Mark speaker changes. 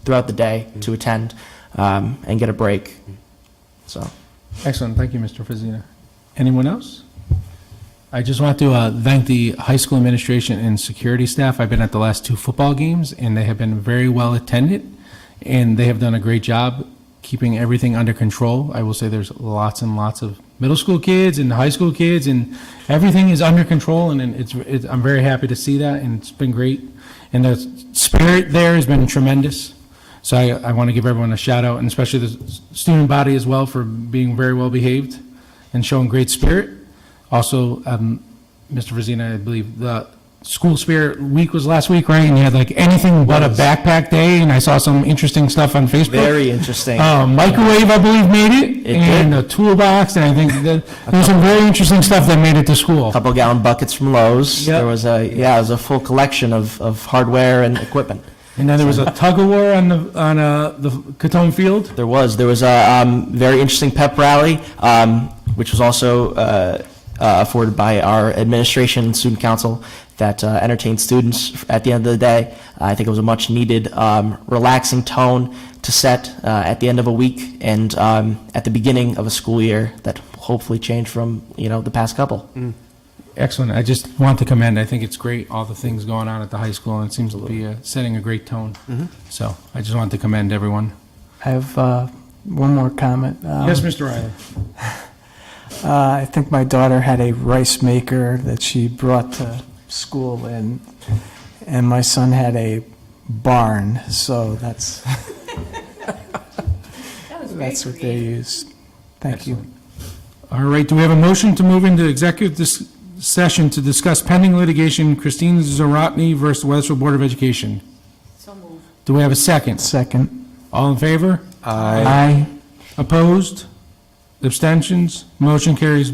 Speaker 1: throughout the day to attend um, and get a break. So,
Speaker 2: Excellent, thank you, Mr. Fazina. Anyone else? I just want to uh, thank the high school administration and security staff. I've been at the last two football games, and they have been very well attended, and they have done a great job keeping everything under control. I will say there's lots and lots of middle school kids and high school kids, and everything is under control, and it's, it's- I'm very happy to see that, and it's been great. And the spirit there has been tremendous. So I, I want to give everyone a shout out, and especially the s- student body as well, for being very well behaved and showing great spirit. Also, um, Mr. Vazina, I believe the school spirit week was last week, right? And you had like anything but a backpack day, and I saw some interesting stuff on Facebook.
Speaker 1: very interesting.
Speaker 2: Uh, microwave, I believe, made it,
Speaker 1: It
Speaker 2: and a toolbox, and I think that there's some very interesting stuff that made it to school.
Speaker 1: couple gallon buckets from Lowe's.
Speaker 2: Yep.
Speaker 1: There was a, yeah, it was a full collection of, of hardware and equipment.
Speaker 2: And then there was a tug of war on the on uh, the Catone Field.
Speaker 1: There was, there was a um, very interesting pep rally, um, which was also uh, uh, afforded by our administration and student council that uh, entertained students at the end of the day. I think it was a much needed, um, relaxing tone to set uh, at the end of a week and um, at the beginning of a school year that hopefully changed from, you know, the past couple.
Speaker 2: Excellent. I just want to commend. I think it's great all the things going on at the high school, and it seems to be uh, setting a great tone.
Speaker 1: Mm-hmm.
Speaker 2: So I just want to commend everyone.
Speaker 3: I have uh, one more comment. Um,
Speaker 2: yes, Mr. Riley.
Speaker 3: uh, I think my daughter had a rice maker that she brought to school, and and my son had a barn. So that's
Speaker 4: That was
Speaker 3: that's
Speaker 4: very
Speaker 3: what they
Speaker 4: creative.
Speaker 3: use. Thank you.
Speaker 2: All right. Do we have a motion to move into executive dis- session to discuss pending litigation, Christine Zarotny versus Weathersfield Board of Education?
Speaker 4: So moved.
Speaker 2: Do we have a second?
Speaker 3: Second.
Speaker 2: All in favor?
Speaker 3: Aye.
Speaker 2: Opposed? Abstentions? Motion carries